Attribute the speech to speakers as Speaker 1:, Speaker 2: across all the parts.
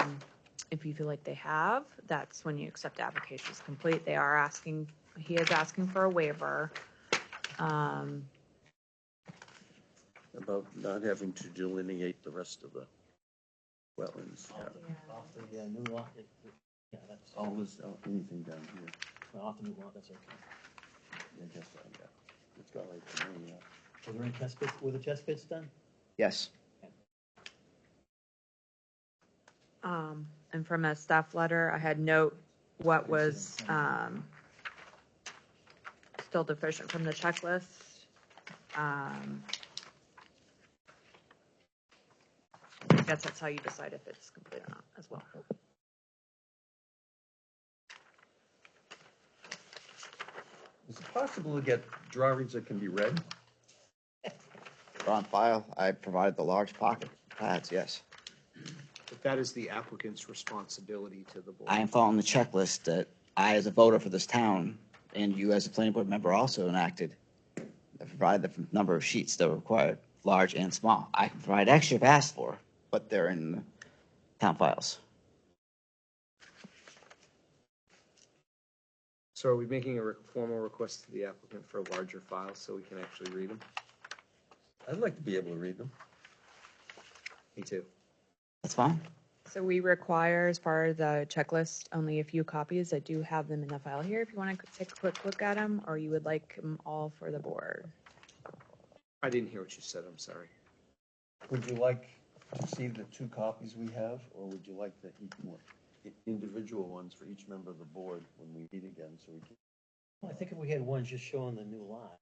Speaker 1: um, If you feel like they have, that's when you accept the application is complete. They are asking, he is asking for a waiver. Um,
Speaker 2: about not having to delineate the rest of the wetlands.
Speaker 3: Off the uh, new lot, it- it- yeah, that's,
Speaker 2: All this, oh, anything down here,
Speaker 3: well, off the new lot, that's okay.
Speaker 2: I guess, uh, yeah. It's got like, the main, uh,
Speaker 3: Were there any test pits, were the test pits done?
Speaker 4: Yes.
Speaker 1: um, and from a staff letter, I had note what was, um, still deficient from the checklist. Um, I guess that's how you decide if it's complete or not as well.
Speaker 2: Is it possible to get drawings that can be read?
Speaker 4: They're on file. I provided the large pocket pads, yes.
Speaker 5: But that is the applicant's responsibility to the board.
Speaker 4: I am following the checklist that I, as a voter for this town, and you as a planning board member also enacted. I provided the number of sheets that were required, large and small. I can provide extra if asked for, but they're in the town files.
Speaker 5: So are we making a re- formal request to the applicant for a larger file so we can actually read them?
Speaker 2: I'd like to be able to read them.
Speaker 5: Me too.
Speaker 4: That's fine.
Speaker 1: So we require, as far as the checklist, only a few copies. I do have them in the file here if you want to take a quick look at them, or you would like them all for the board.
Speaker 5: I didn't hear what you said, I'm sorry.
Speaker 2: Would you like to see the two copies we have, or would you like the each more? i- Individual ones for each member of the board when we meet again, so we can.
Speaker 3: Well, I think if we had one just showing the new lot.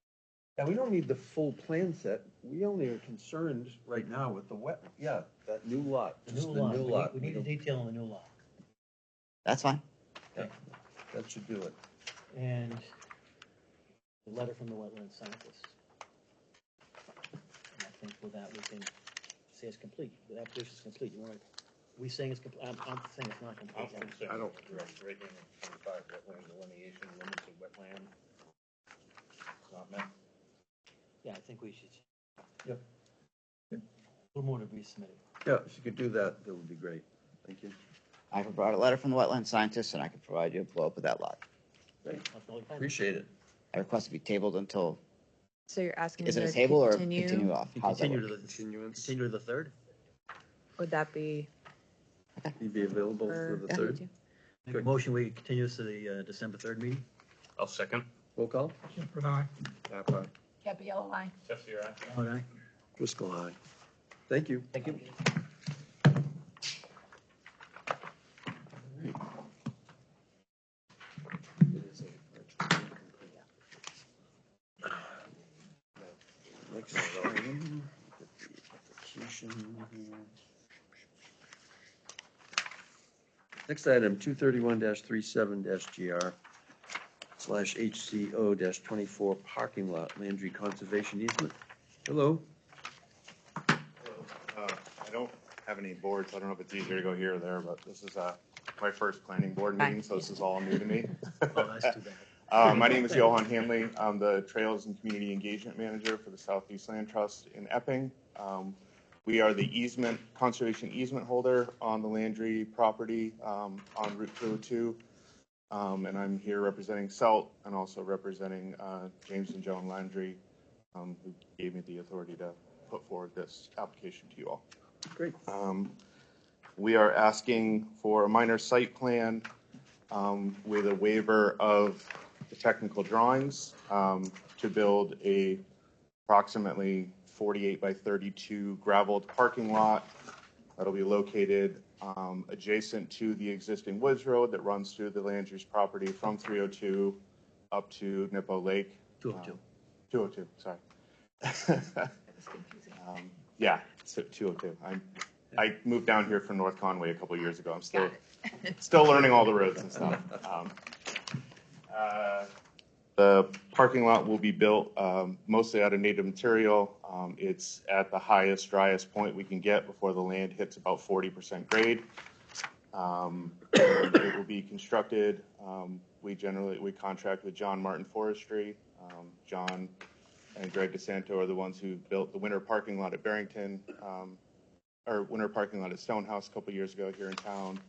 Speaker 2: Yeah, we don't need the full plan set, we only are concerned right now with the wet, yeah, that new lot,
Speaker 3: The
Speaker 2: just
Speaker 3: new
Speaker 2: the
Speaker 3: lot,
Speaker 2: new
Speaker 3: we
Speaker 2: lot.
Speaker 3: need- we need a detail on the new lot.
Speaker 4: That's fine.
Speaker 2: don't- That should do it.
Speaker 3: And the letter from the wetland scientist. And I think with that, we can say it's complete, the application is complete, you want, we saying it's complete, I'm, I'm saying it's not complete.
Speaker 5: I don't-
Speaker 6: Breaking twenty-five wetland delineation limits of wetland. Not met.
Speaker 3: Yeah, I think we should.
Speaker 2: Yep.
Speaker 3: A little more to be submitted.
Speaker 2: Yeah, if you could do that, that would be great, thank you.
Speaker 4: I provide a letter from the wetland scientist, and I can provide you a blow up of that lot.
Speaker 3: That's all we can.
Speaker 2: Appreciate it.
Speaker 4: I request to be tabled until,
Speaker 1: So you're asking.
Speaker 4: is it
Speaker 1: to
Speaker 4: a table or continue
Speaker 1: continue?
Speaker 4: off? How's that work?
Speaker 5: the continuance.
Speaker 3: to the third?
Speaker 1: Would that be?
Speaker 2: You'd be available for the
Speaker 1: Uh,
Speaker 4: Yeah.
Speaker 2: third?
Speaker 3: Make a motion, we continue this to the uh, December third meeting?
Speaker 6: I'll second.
Speaker 2: Roll call?
Speaker 5: Napa.
Speaker 7: Capiella, aye.
Speaker 6: Jesse, your
Speaker 3: All right.
Speaker 2: Driscoll, aye. Thank you.
Speaker 3: Thank you.
Speaker 2: Next item, get the application here. Next item, two thirty-one 37 GR slash HCO twenty-four parking lot, Landry Conservation Easement. Hello?
Speaker 6: Uh, I don't have any boards, I don't know if it's easier to go here or there, but this is, uh, my first planning board meeting, so this is all new to me.
Speaker 3: Oh, that's too bad.
Speaker 6: Uh, my name is Johan Hanley. I'm the Trails and Community Engagement Manager for the Southeast Land Trust in Epping. Um, we are the easement, conservation easement holder on the Landry property, um, on Route two oh two. Um, and I'm here representing SALT and also representing, uh, James and Joan Landry, um, who gave me the authority to put forward this application to you all.
Speaker 2: Great.
Speaker 6: Um, we are asking for a minor site plan, um, with a waiver of the technical drawings, um, to build a approximately forty-eight by thirty-two gravelled parking lot that'll be located, um, adjacent to the existing Woods Road that runs through the land use property from three oh two up to Nippo Lake.
Speaker 3: Two oh two.
Speaker 6: Two oh two, sorry. Um, Yeah, so two oh two. I'm, I moved down here from North Conway a couple of years ago. I'm still, still learning all the roads and stuff. Um, uh, The parking lot will be built um, mostly out of native material. Um, It's at the highest, driest point we can get before the land hits about forty percent grade. Um, It will be constructed, um, we generally, we contract with John Martin Forestry. Um, John and Greg DeSanto are the ones who built the winter parking lot at Barrington, um, or winter parking lot at Stonehouse a couple years ago here in town.